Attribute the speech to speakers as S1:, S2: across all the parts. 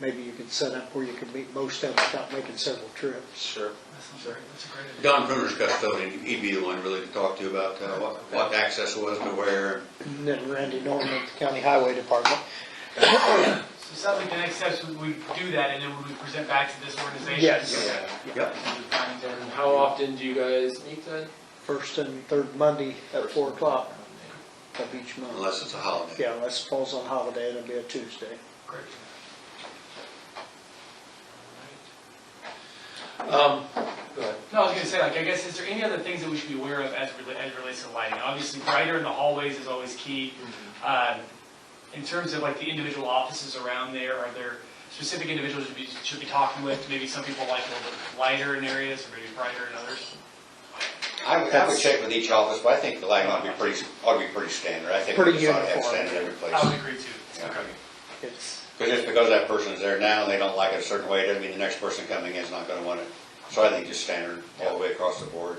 S1: maybe you could set up where you could meet most of them without making several trips.
S2: Sure.
S3: That sounds great, that's a great idea.
S4: Don Bruner's custodian, he'd be the one really to talk to about uh, what, what access was to where.
S1: And then Randy Norman at the County Highway Department.
S3: So it sounds like the next steps, we we do that, and then we would present back to this organization.
S1: Yes.
S4: Yep.
S5: And how often do you guys meet then?
S1: First and third Monday at four o'clock of each month.
S4: Unless it's a holiday.
S1: Yeah, unless it falls on holiday, it'll be a Tuesday.
S3: Great.
S5: Um, go ahead.
S3: No, I was gonna say, like, I guess, is there any other things that we should be aware of as, rela- as relates to lighting? Obviously, brighter in the hallways is always key. Um, In terms of like the individual offices around there, are there specific individuals you be- should be talking with? Maybe some people like a little bit lighter in areas, or maybe brighter in others?
S4: I would, I would check with each office, but I think the lighting ought to be pretty, ought to be pretty standard. I think we
S1: Pretty
S4: just ought to have
S1: uniform.
S4: standard every place.
S3: I would agree too.
S4: Yeah.
S1: It's,
S4: Because just because that person's there now, and they don't like it a certain way, doesn't mean the next person coming in is not gonna want it. So I think just standard all the way across the board.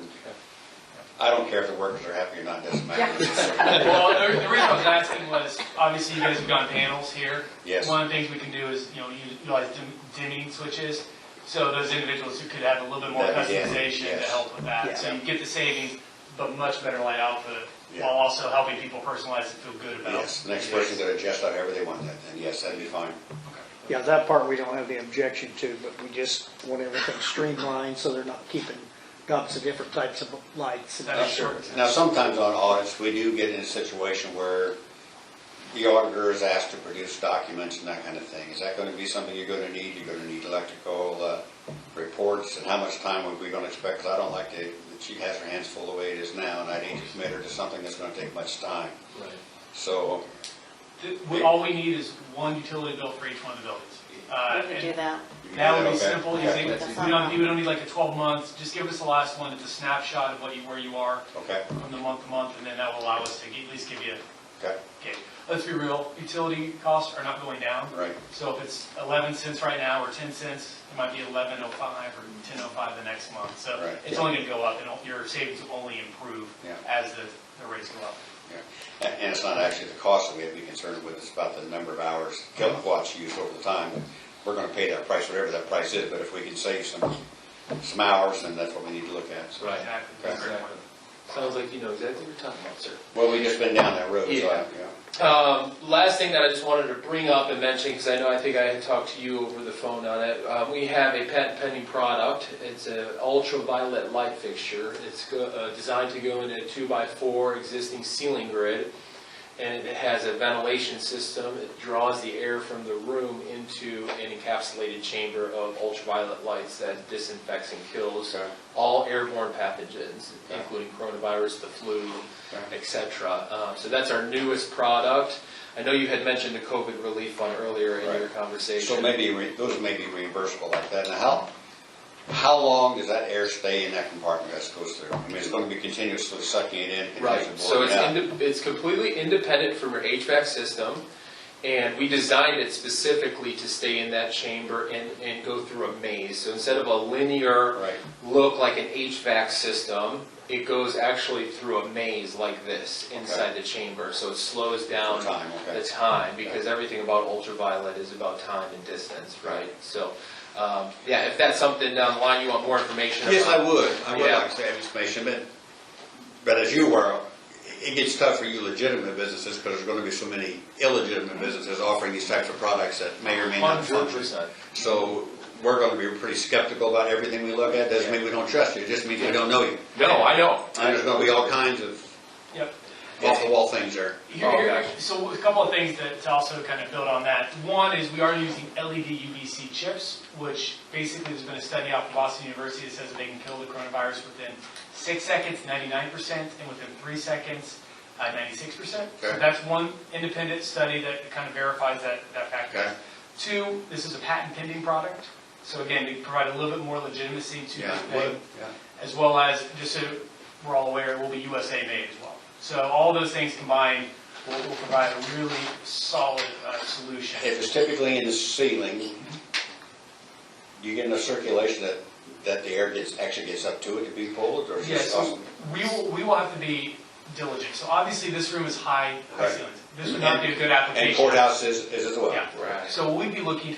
S4: I don't care if the workers are happy or not, doesn't matter.
S3: Well, the the reason I was asking was, obviously, you guys have gone panels here.
S4: Yes.
S3: One of the things we can do is, you know, utilize dim- dimming switches, so those individuals who could have a little bit more
S4: That'd be it,
S3: customization to
S4: yes.
S3: help with
S1: Yeah.
S3: that. So you get the savings, but much better light output,
S4: Yeah.
S3: while also helping people personalize and feel good about.
S4: Yes, the next person could adjust however they want that, and yes, that'd be fine.
S1: yeah, that part we don't have the objection to, but we just want everything streamlined so they're not keeping lots of different types of lights.
S3: That is short.
S4: Now, sometimes on audits, we do get in a situation where the auditor is asked to produce documents and that kind of thing. Is that gonna be something you're gonna need? You're gonna need electrical, uh, reports, and how much time are we gonna expect? Because I don't like to, that she has her hands full the way it is now, and I need to commit her to something that's gonna take much time.
S5: Right.
S4: So,
S3: Th- we- All we need is one utility bill for each one of the buildings. Uh,
S6: We can
S3: and
S6: do that.
S3: That would be
S4: Okay.
S3: simple, easy.
S6: That's
S3: We don't, you don't need like a twelve month, just give us the last one, it's a snapshot of what you, where you are
S4: okay,
S3: from the month to month, and then that will allow us to at least give you a
S4: okay,
S3: Okay, let's be real, utility costs are not going down.
S4: right,
S3: So if it's 11 cents right now or 10 cents, it might be 11.05 or 10.05 the next month. So
S4: Right.
S3: it's only going to go up and your savings will only improve
S4: Yeah.
S3: as the the rates go up.
S4: yeah. And and it's not actually the cost that we have to be concerned with, it's about the number of hours,
S5: Uh-huh.
S4: kilowatts used over the time. We're gonna pay that price, whatever that price is, but if we can save some, some hours, then that's what we need to look at, so.
S5: Right.
S3: Exactly.
S4: Okay.
S3: That's a great point.
S5: Sounds like you know exactly what you're talking about, sir.
S4: Well, we just been down that road, so,
S5: Yeah.
S4: yeah.
S5: Um, last thing that I just wanted to bring up and mention, because I know I think I had talked to you over the phone on it. Um, we have a patent pending product. It's an ultraviolet light fixture. It's go, uh, designed to go into a two by four existing ceiling grid, and it has a ventilation system. It draws the air from the room into an encapsulated chamber of ultraviolet lights that disinfects and kills
S4: Okay.
S5: all airborne pathogens,
S4: Okay.
S5: including coronavirus, the flu,
S4: Okay.
S5: et cetera. Um, So that's our newest product. I know you had mentioned the COVID relief fund earlier in your
S4: Right.
S5: conversation.
S4: So maybe, re- those may be reimbursable like that. Now, how, how long does that air stay in that compartment as it goes through? I mean, it's gonna be continuously sucking it in.
S5: Right,
S4: continuously
S5: so it's,
S4: blowing out.
S5: inde- it's completely independent from your HVAC system, and we designed it specifically to stay in that chamber and, and go through a maze. So instead of a linear
S4: Right,
S5: look like an HVAC system, it goes actually through a maze like this inside the chamber. So it slows down
S4: Through time, okay.
S5: the time, because everything about ultraviolet is about time and distance, right? So, um, yeah, if that's something down the line you want more information about.
S4: Yes, I would, I would
S5: Yeah.
S4: like to have information, but, but as you were, it gets tough for you legitimate businesses, because there's gonna be so many illegitimate businesses offering these types of products that may or may not
S5: Hundred
S4: function.
S5: percent.
S4: So we're gonna be pretty skeptical about everything we look at, doesn't mean we don't trust you, it just means we don't know you.
S5: No, I know.
S4: And there's gonna be all kinds of
S3: Yep.
S4: off-the-wall things there.
S3: Here-
S5: Oh,
S3: here-
S5: gosh.
S3: So a couple of things that to also kind of build on that. One is we are using E LED UVC chips, which basically there's been a study out of Boston University that says they can kill the coronavirus within six seconds, 99%, and within three seconds, uh, 96%. So
S4: Okay.
S3: that's one independent study that kind of verifies that, that
S4: Okay.
S3: factor. Two, this is a patent pending product. So again, we provide a little bit more legitimacy to the thing as well as, just so we're all aware, it will be USA made as well. So all those things combined will, will provide a really solid uh, solution.
S4: If it's typically in the ceiling, you get enough circulation that, that the air gets, actually gets up to it to be pulled, or is
S3: Yeah,
S4: it
S3: so
S4: awesome?
S3: we will, we will have to be diligent. So obviously, this room is high, high
S4: Right.
S3: ceilings. This would not be a good application.
S4: And courthouse is, is as well.
S3: Yeah.
S5: Right.
S3: So we'd be looking